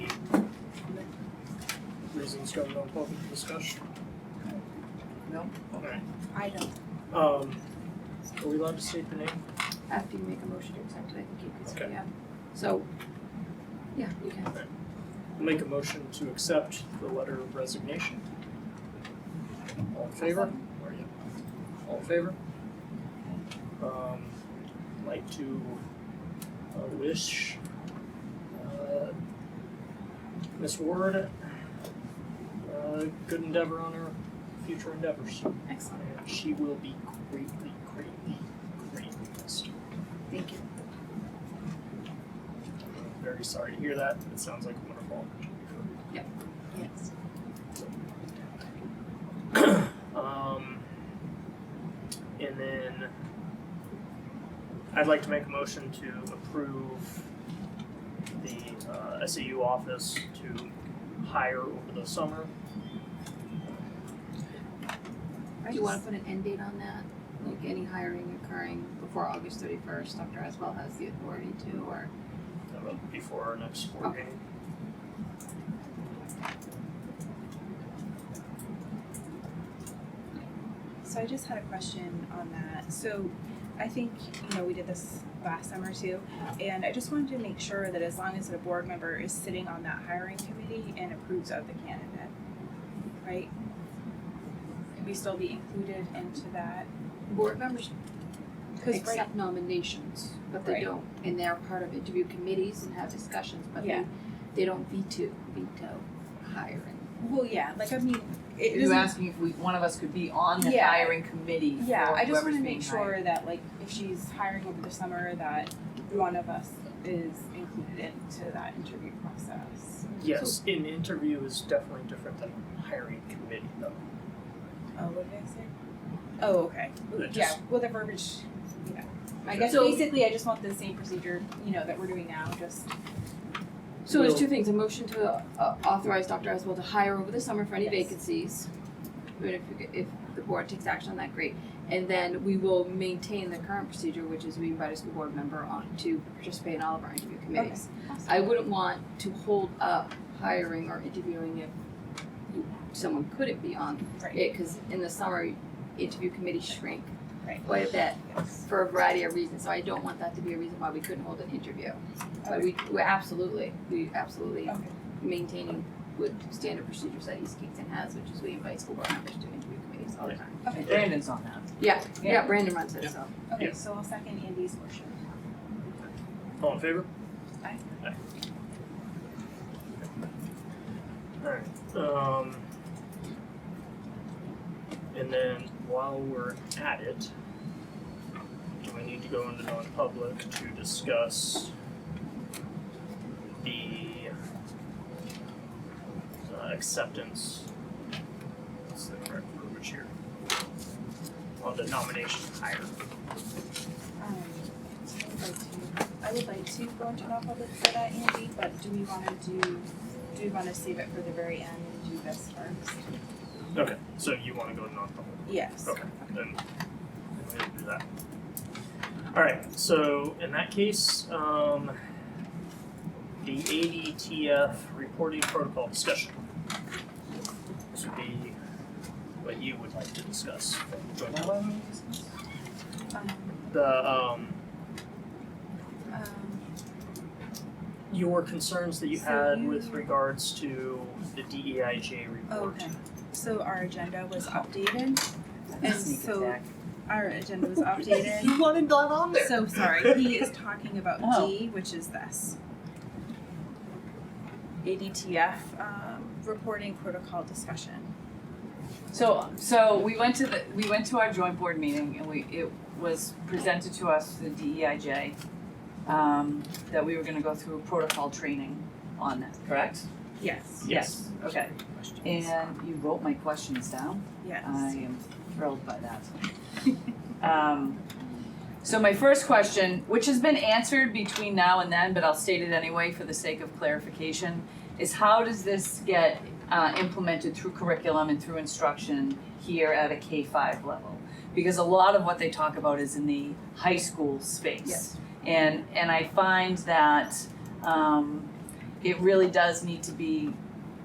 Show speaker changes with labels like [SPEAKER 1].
[SPEAKER 1] reasons go no public discussion? No? Alright.
[SPEAKER 2] I don't.
[SPEAKER 1] Um, are we allowed to state the name?
[SPEAKER 2] After you make a motion to accept it, I think you can say,
[SPEAKER 1] Okay.
[SPEAKER 2] yeah. So, yeah, you can.
[SPEAKER 1] I'll Make a motion to accept the letter of resignation. All in favor? Where are you? All in favor? Um, I'd like to uh, wish uh, Ms. Ward uh, good endeavor on her future endeavors.
[SPEAKER 2] Excellent.
[SPEAKER 1] And She will be greatly, greatly, greatly missed.
[SPEAKER 2] Thank you.
[SPEAKER 1] I'm Very sorry to hear that. It sounds like a wonderful opportunity for her.
[SPEAKER 2] Yes.
[SPEAKER 1] Um, and then I'd like to make a motion to approve the uh, SAU office to hire over the summer.
[SPEAKER 2] Do you wanna put an end date on that? Like any hiring occurring before August thirty-first, Dr. Aswell has the authority to, or?
[SPEAKER 1] That will be for uh, our next board
[SPEAKER 2] Okay.
[SPEAKER 1] meeting.
[SPEAKER 3] So I just had a question on that. So I think, you know, we did this last summer too, and I just wanted to make sure that as long as a board member is sitting on that hiring committee and approves of the candidate, right? Could we still be included into that?
[SPEAKER 2] Board members
[SPEAKER 3] Cause right,
[SPEAKER 2] accept nominations, but they
[SPEAKER 3] Right.
[SPEAKER 2] don't, and they're part of interview committees and have discussions, but they,
[SPEAKER 3] Yeah.
[SPEAKER 2] they don't veto, veto hiring.
[SPEAKER 3] well, yeah, like I mean, it
[SPEAKER 4] You're
[SPEAKER 3] isn't,
[SPEAKER 4] asking if we, one of us could be on the
[SPEAKER 3] Yeah.
[SPEAKER 4] hiring committee for
[SPEAKER 3] yeah, I just
[SPEAKER 4] whoever's
[SPEAKER 3] wanna
[SPEAKER 4] being
[SPEAKER 3] make
[SPEAKER 4] hired.
[SPEAKER 3] sure that like if she's hiring over the summer, that one of us is included into that interview process.
[SPEAKER 1] Yes, an interview is definitely different than hiring committee though.
[SPEAKER 3] Oh, what did I say? Oh, okay.
[SPEAKER 1] That
[SPEAKER 3] Yeah,
[SPEAKER 1] just-
[SPEAKER 3] well, the verbiage, yeah. I
[SPEAKER 1] Okay.
[SPEAKER 3] guess
[SPEAKER 2] So-
[SPEAKER 3] basically, I just want the same procedure, you know, that we're doing now, just,
[SPEAKER 2] So there's
[SPEAKER 1] Will-
[SPEAKER 2] two things, a motion to uh, authorize Dr. Aswell to hire over the summer for any
[SPEAKER 3] Yes.
[SPEAKER 2] vacancies. I mean, if, if the board takes action on that, great. And then we will maintain the current procedure, which is we invite a school board member on to participate in all of our interview committees. I wouldn't want to hold up hiring or interviewing if you- someone couldn't be on
[SPEAKER 3] right,
[SPEAKER 2] it, cause in the summer, interview committees shrink
[SPEAKER 3] right.
[SPEAKER 2] quite a bit
[SPEAKER 3] yes.
[SPEAKER 2] for a variety of reasons, so I don't want that to be a reason why we couldn't hold an interview. But we, we absolutely, we absolutely
[SPEAKER 3] Okay.
[SPEAKER 2] maintaining with standard procedures that East Kingston has, which is we invite school board members to interview committees all the time.
[SPEAKER 3] Okay,
[SPEAKER 4] Brandon's on that.
[SPEAKER 2] Yeah,
[SPEAKER 4] Yeah.
[SPEAKER 2] yeah, Brandon runs it,
[SPEAKER 1] Yeah.
[SPEAKER 2] so.
[SPEAKER 3] okay, so I'll second Andy's motion.
[SPEAKER 1] All in favor?
[SPEAKER 3] Aye.
[SPEAKER 1] Aye. Alright, um. And then while we're at it, do I need to go into non-public to discuss the uh, acceptance, what's the correct verbiage here? Well, the nomination hire.
[SPEAKER 3] Um, so I would like to, I would like to go into non-public for that, Andy, but do we wanna do, do we wanna save it for the very end and do this first?
[SPEAKER 1] Okay. So you wanna go to non-public?
[SPEAKER 3] Yes.
[SPEAKER 1] Okay, then we will do that. Alright, so in that case, um the ADTF reporting protocol discussion. This would be what you would like to discuss.
[SPEAKER 3] Um,
[SPEAKER 1] The um
[SPEAKER 3] um,
[SPEAKER 1] your concerns that you
[SPEAKER 3] So
[SPEAKER 1] had with
[SPEAKER 3] you-
[SPEAKER 1] regards to the DEIJ report.
[SPEAKER 3] Okay. so our agenda was updated, and
[SPEAKER 4] Sneak
[SPEAKER 3] so
[SPEAKER 4] attack.
[SPEAKER 3] our agenda was updated.
[SPEAKER 4] You wanted that on there.
[SPEAKER 3] So sorry, he is talking about
[SPEAKER 4] Oh.
[SPEAKER 3] D, which is this. ADTF um, reporting protocol discussion.
[SPEAKER 4] So, so we went to the, we went to our joint board meeting and we, it was presented to us, the DEIJ, um, that we were gonna go through protocol training on that, correct?
[SPEAKER 3] Yes.
[SPEAKER 1] Yes.
[SPEAKER 4] Okay, and you wrote my questions down?
[SPEAKER 3] Yes.
[SPEAKER 4] I am thrilled by that. Um, so my first question, which has been answered between now and then, but I'll state it anyway for the sake of clarification, is how does this get uh, implemented through curriculum and through instruction here at a K five level? Because a lot of what they talk about is in the high school space.
[SPEAKER 2] Yes.
[SPEAKER 4] And and I find that um, it really does need to be